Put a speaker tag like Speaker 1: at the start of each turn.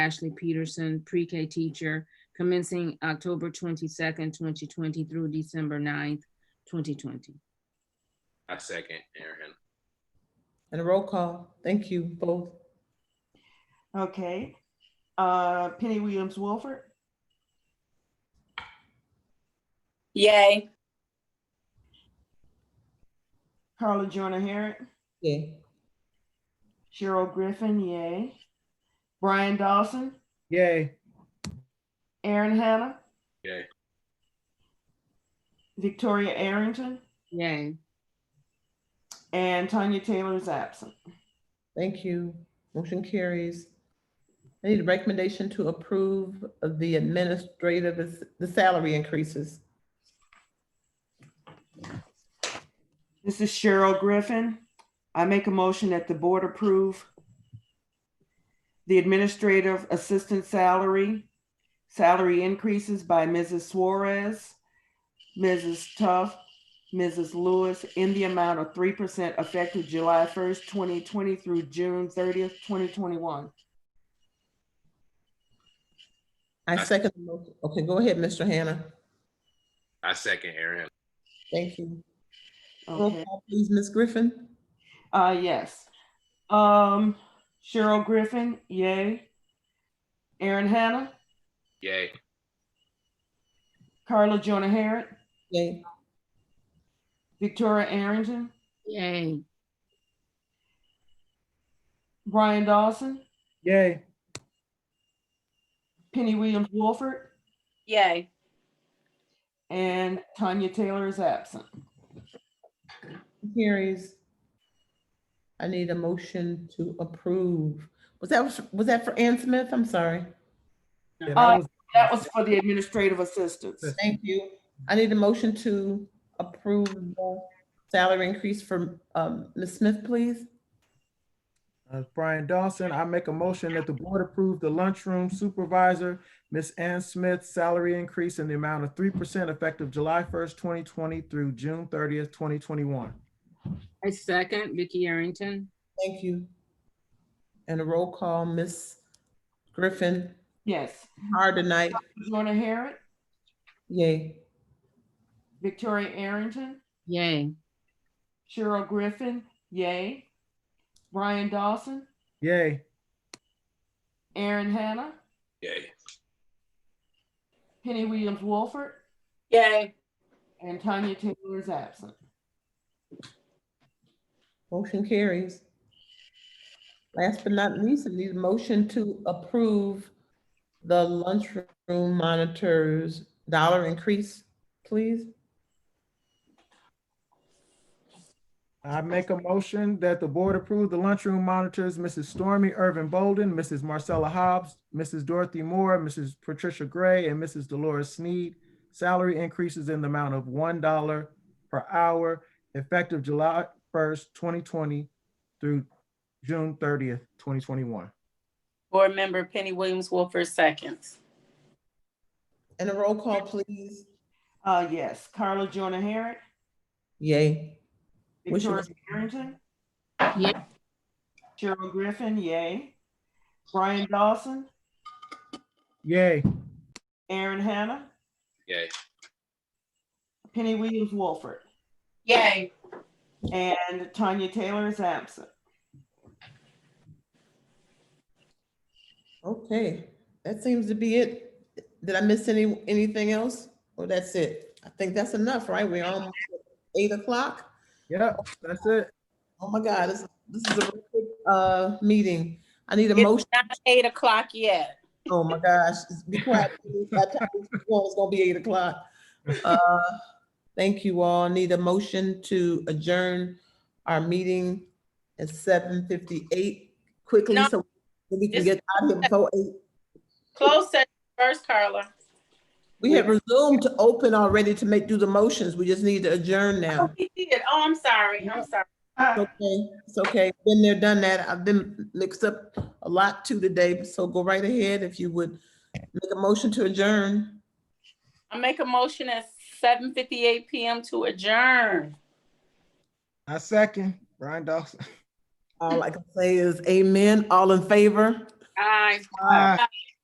Speaker 1: Ashley Peterson, pre-K teacher, commencing October twenty-second, twenty twenty through December 9th, twenty twenty.
Speaker 2: I second Aaron.
Speaker 3: And a roll call. Thank you both.
Speaker 4: Okay. Uh, Penny Williams Wilford,
Speaker 5: Yay.
Speaker 4: Carla Jonah Harrit,
Speaker 3: Yeah.
Speaker 4: Cheryl Griffin, yay. Brian Dawson,
Speaker 6: Yay.
Speaker 4: Aaron Hanna.
Speaker 2: Yay.
Speaker 4: Victoria Arrington
Speaker 1: Yay.
Speaker 4: and Tanya Taylor is absent.
Speaker 3: Thank you. Motion carries. I need a recommendation to approve of the administrative, the salary increases.
Speaker 4: This is Cheryl Griffin. I make a motion that the board approve the administrative assistant salary, salary increases by Mrs. Suarez, Mrs. Tuff, Mrs. Lewis in the amount of three percent effective July first, twenty twenty through June thirtieth, twenty twenty-one.
Speaker 3: I second, the motion. okay, go ahead, Mr. Hannah.
Speaker 2: I second Aaron.
Speaker 3: Thank you. Roll
Speaker 4: Okay,
Speaker 3: call, please, Ms. Griffin.
Speaker 4: uh, yes. Um, Cheryl Griffin, yay. Aaron Hanna,
Speaker 2: Yay.
Speaker 4: Carla Jonah Harret,
Speaker 3: Yay.
Speaker 4: Victoria Arrington,
Speaker 1: Yay.
Speaker 4: Brian Dawson,
Speaker 6: Yay.
Speaker 4: Penny Williams Wolford,
Speaker 5: Yay.
Speaker 4: and Tanya Taylor is absent.
Speaker 3: Carries. I need a motion to approve. Was that, was that for Ann Smith? I'm sorry.
Speaker 6: Yeah, that was-
Speaker 4: That was for the administrative assistants.
Speaker 3: Thank you. I need a motion to approve the salary increase for um, Ms. Smith, please.
Speaker 6: uh, Brian Dawson, I make a motion that the board approve the lunchroom supervisor, Miss Ann Smith's salary increase in the amount of three percent effective July first, twenty twenty through June thirtieth, twenty twenty-one.
Speaker 1: I second Vicky Arrington.
Speaker 3: Thank you. And a roll call, Ms. Griffin,
Speaker 4: Yes.
Speaker 3: hard tonight.
Speaker 4: Jonah Harrit,
Speaker 3: Yay.
Speaker 4: Victoria Arrington,
Speaker 1: Yay.
Speaker 4: Cheryl Griffin, yay. Brian Dawson,
Speaker 6: Yay.
Speaker 4: Aaron Hanna,
Speaker 2: Yay.
Speaker 4: Penny Williams Wolford,
Speaker 5: Yay.
Speaker 4: and Tanya Taylor is absent.
Speaker 3: Motion carries. Last but not least, I need a motion to approve the lunchroom monitors dollar increase, please.
Speaker 6: I make a motion that the board approve the lunchroom monitors, Mrs. Stormy Irvin Bolden, Mrs. Marcella Hobbs, Mrs. Dorothy Moore, Mrs. Patricia Gray, and Mrs. Dolores Sneed. Salary increases in the amount of one dollar per hour effective July first, twenty twenty through June thirtieth, twenty twenty-one.
Speaker 5: Board Member Penny Williams Wolford seconds.
Speaker 3: And a roll call, please.
Speaker 4: Uh, yes. Carla Jonah Harrit,
Speaker 3: Yay. Wish it
Speaker 4: Victoria
Speaker 3: was-
Speaker 4: Arrington,
Speaker 1: Yay.
Speaker 4: Cheryl Griffin, yay. Brian Dawson,
Speaker 6: Yay.
Speaker 4: Aaron Hanna,
Speaker 2: Yay.
Speaker 4: Penny Williams Wolford,
Speaker 5: Yay.
Speaker 4: and Tanya Taylor is absent.
Speaker 3: Okay, that seems to be it. Did I miss any, anything else? Or that's it? I think that's enough, right? We're almost at eight o'clock.
Speaker 6: Yep, that's it.
Speaker 3: Oh my God, this, this is a real quick, uh, meeting. I need a
Speaker 5: It's
Speaker 3: motion.
Speaker 5: not eight o'clock yet.
Speaker 3: Oh my gosh, be quiet. please. By the time this is going, It's gonna be eight o'clock. Uh, Thank you all. Need a motion to adjourn our meeting at seven fifty-eight quickly
Speaker 5: No.
Speaker 3: so we can
Speaker 5: This-
Speaker 3: get out of here before eight.
Speaker 5: Close session first, Carla.
Speaker 3: We have resumed to open already to make, do the motions. We just need to adjourn now.
Speaker 5: Oh, we did. Oh, I'm sorry. I'm sorry.
Speaker 3: It's Okay, it's okay. Been there, done that. I've been mixed up a lot too today, so go right ahead if you would make a motion to adjourn.
Speaker 5: I make a motion at seven fifty-eight PM to adjourn.
Speaker 6: I second Brian Dawson.
Speaker 3: All I can say is amen. All in favor?
Speaker 7: Aye.
Speaker 5: Aye.